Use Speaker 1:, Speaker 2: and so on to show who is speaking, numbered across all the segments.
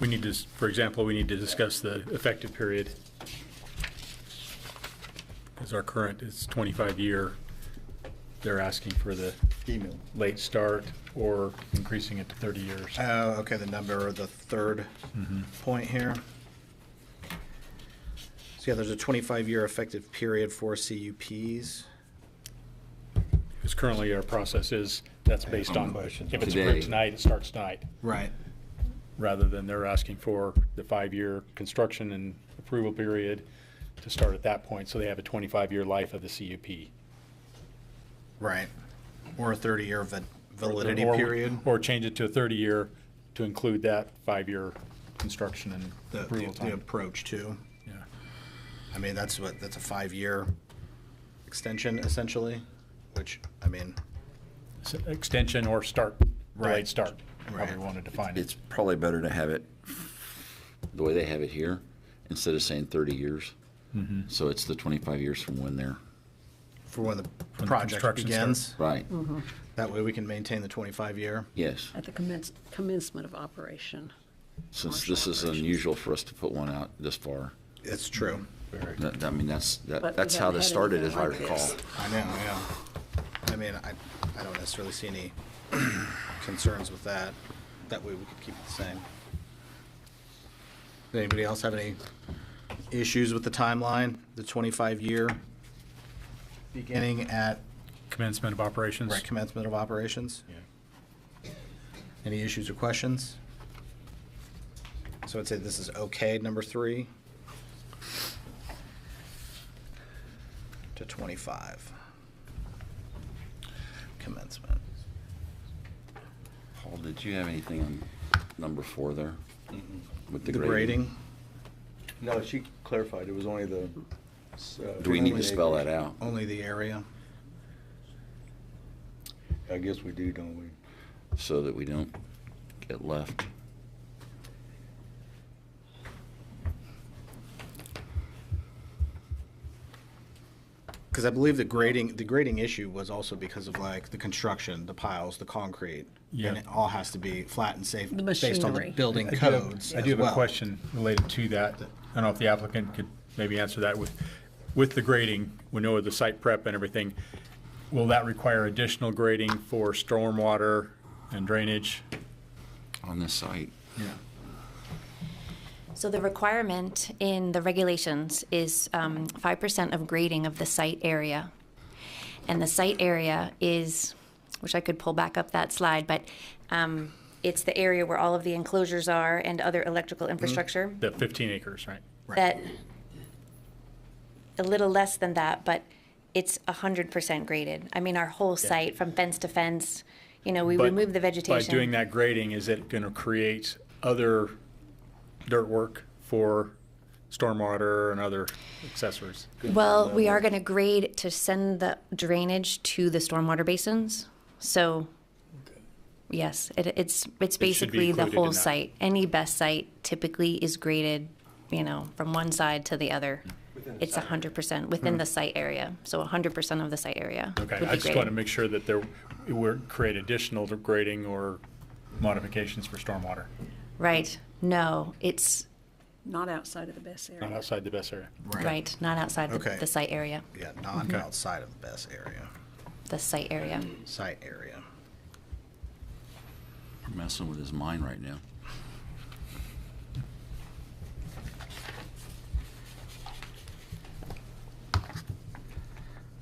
Speaker 1: We need to, s- for example, we need to discuss the effective period. Because our current is 25-year. They're asking for the
Speaker 2: Email.
Speaker 1: late start or increasing it to 30 years. Mm-hmm.
Speaker 2: Oh, okay, the number, or the third point here. So yeah, there's a 25-year effective period for CUPs.
Speaker 1: Because currently our process is, that's based on,
Speaker 3: questions.
Speaker 1: if it's
Speaker 4: Today.
Speaker 1: approved tonight, it starts tonight.
Speaker 2: Right.
Speaker 1: rather than they're asking for the five-year construction and approval period to start at that point, so they have a 25-year life of the CUP.
Speaker 2: Right. Or a 30-year va- validity
Speaker 1: Or-
Speaker 2: period.
Speaker 1: Or change it to a 30-year to include that five-year construction and
Speaker 2: The,
Speaker 1: approval
Speaker 2: the- the
Speaker 1: time.
Speaker 2: approach too.
Speaker 1: Yeah.
Speaker 2: I mean, that's what, that's a five-year extension essentially, which, I mean,
Speaker 1: So Extension or start,
Speaker 2: Right.
Speaker 1: delayed start, however
Speaker 2: Right.
Speaker 1: you want to define it.
Speaker 4: It's probably better to have it the way they have it here, instead of saying 30 years. So it's the 25 years from when they're,
Speaker 2: for when the project
Speaker 1: construction
Speaker 2: begins.
Speaker 4: right,
Speaker 2: That way we can maintain the 25-year.
Speaker 4: yes.
Speaker 5: Mm-hmm. At the commence- commencement of operation.
Speaker 4: Since
Speaker 5: Commercial
Speaker 4: this is
Speaker 5: operations.
Speaker 4: unusual for us to put one out this far.
Speaker 2: It's true.
Speaker 4: That- that- I mean, that's,
Speaker 5: But we
Speaker 4: that. that's how
Speaker 5: haven't
Speaker 4: this
Speaker 5: had
Speaker 4: started, as
Speaker 5: anything
Speaker 4: I
Speaker 5: like
Speaker 4: recall.
Speaker 5: this.
Speaker 2: I know, yeah. I mean, I, I don't necessarily see any concerns with that. That way we could keep it the same. Does Anybody else have any issues with the timeline, the 25-year beginning at
Speaker 1: Commencement of operations.
Speaker 2: right commencement of operations?
Speaker 1: Yeah.
Speaker 2: Any issues or questions? So I'd say this is okay, number three. To 25. Commencement.
Speaker 4: Paul, did you have anything on number four there? With
Speaker 2: The grading,
Speaker 3: No, she clarified, it was only the. uh,
Speaker 4: Do we need to spell that
Speaker 3: acres.
Speaker 4: out?
Speaker 2: only the area.
Speaker 3: I guess we do, don't we?
Speaker 4: So that we don't get left.
Speaker 2: Because I believe the grading, the grading issue was also because of like the construction, the piles, the concrete.
Speaker 1: Yeah.
Speaker 2: And it all has to be flat and safe
Speaker 5: The
Speaker 2: based on
Speaker 5: machinery.
Speaker 2: the building
Speaker 1: I do have-
Speaker 2: codes
Speaker 1: I
Speaker 2: as
Speaker 1: do have a
Speaker 2: well.
Speaker 1: question related to that. I don't know if the applicant could maybe answer that with, with the grading, we know the site prep and everything. Will that require additional grading for stormwater and drainage?
Speaker 4: on this site.
Speaker 1: Yeah.
Speaker 6: So the requirement in the regulations is um, five percent of grading of the site area. And the site area is, wish I could pull back up that slide, but um, it's the area where all of the enclosures are and other electrical
Speaker 1: Mm-hmm.
Speaker 6: infrastructure
Speaker 1: The 15 acres, right?
Speaker 6: that, a little less than that, but it's hundred percent graded. I mean, our whole site, from fence to fence, you know, we
Speaker 1: But
Speaker 6: remove the vegetation.
Speaker 1: By doing that grading, is it going to create other dirt work for stormwater and other accessories?
Speaker 6: Well, we are going to grade to send the drainage to the stormwater basins. So, yes, it, it's, it's
Speaker 1: be
Speaker 6: basically the
Speaker 1: included in
Speaker 6: whole
Speaker 1: that.
Speaker 6: site. Any best site typically is graded, you know, from one side to the other. It's hundred percent within the site area, so hundred percent of the site area would be
Speaker 1: Hmm. Okay, I just
Speaker 6: graded.
Speaker 1: want to make sure that there, it would create additional grading or modifications for stormwater,
Speaker 6: Right, no, it's,
Speaker 5: Not outside of the best
Speaker 1: not
Speaker 5: area.
Speaker 1: outside the best area.
Speaker 6: right, not outside
Speaker 2: Okay.
Speaker 6: the, the site area,
Speaker 2: Yeah, not outside of the best area,
Speaker 6: the site area.
Speaker 2: site area.
Speaker 4: We're messing with his mind right now.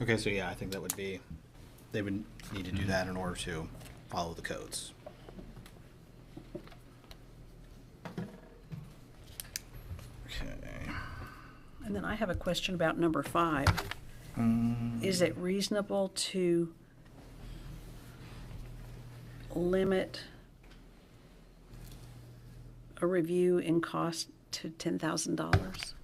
Speaker 2: Okay, so yeah, I think that would be, they would need to do that in order to follow the codes. Okay.
Speaker 5: And then I have a question about number five.
Speaker 1: Mm.
Speaker 5: Is it reasonable to limit a review in cost to $10,000?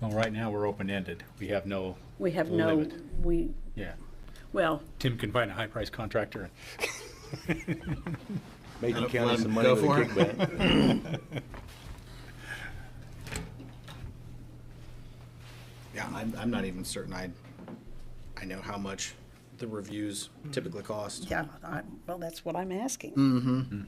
Speaker 1: Well, right now, we're open-ended. We have no,
Speaker 5: We have no,
Speaker 1: Limit.
Speaker 5: we,
Speaker 1: yeah.
Speaker 5: well,
Speaker 1: Tim can find a high-priced contractor.
Speaker 3: Making
Speaker 2: Let
Speaker 3: County
Speaker 2: him
Speaker 3: some
Speaker 2: go
Speaker 3: money with a
Speaker 2: for it.
Speaker 3: kickback.
Speaker 2: Yeah, I'm, I'm not even certain I, I know how much the reviews typically cost.
Speaker 5: yeah, I, well, that's what I'm asking. Mm-hmm.